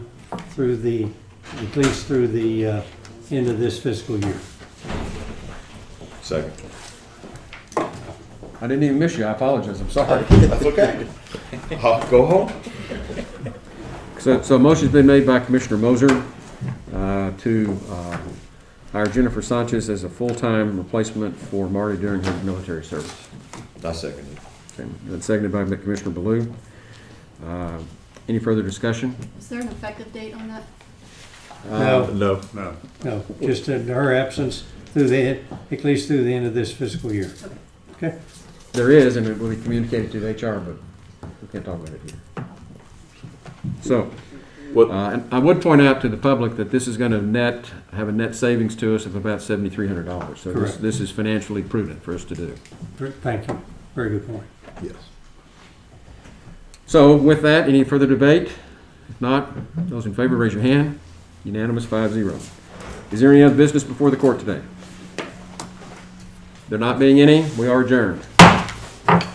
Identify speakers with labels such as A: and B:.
A: through the, at least through the uh, end of this fiscal year.
B: Second.
C: I didn't even miss you, I apologize, I'm sorry.
B: That's okay. Huh, Go home.
C: So, so a motion's been made by Commissioner Moser uh, to uh, hire Jennifer Sanchez as a full-time replacement for Marty during her military service.
B: I second it.
C: Okay, That's seconded by Commissioner Baloo. Uh, Any further discussion?
D: Is there an effective date on that?
A: No,
B: No.
E: No.
A: no, just in her absence through the, end- at least through the end of this fiscal year. Okay?
C: There is, and it will be communicated to the HR, but we can't talk about it here. So,
B: What-
C: uh, and I would point out to the public that this is gonna net, have a net savings to us of about seventy-three hundred dollars. So this,
A: Correct.
C: this is financially prudent for us to do.
A: Thank you. Very good point.
B: Yes.
C: So with that, any further debate? If not, those in favor, raise your hand. Unanimous, five zero. Is there any other business before the court today? There not being any, we are adjourned.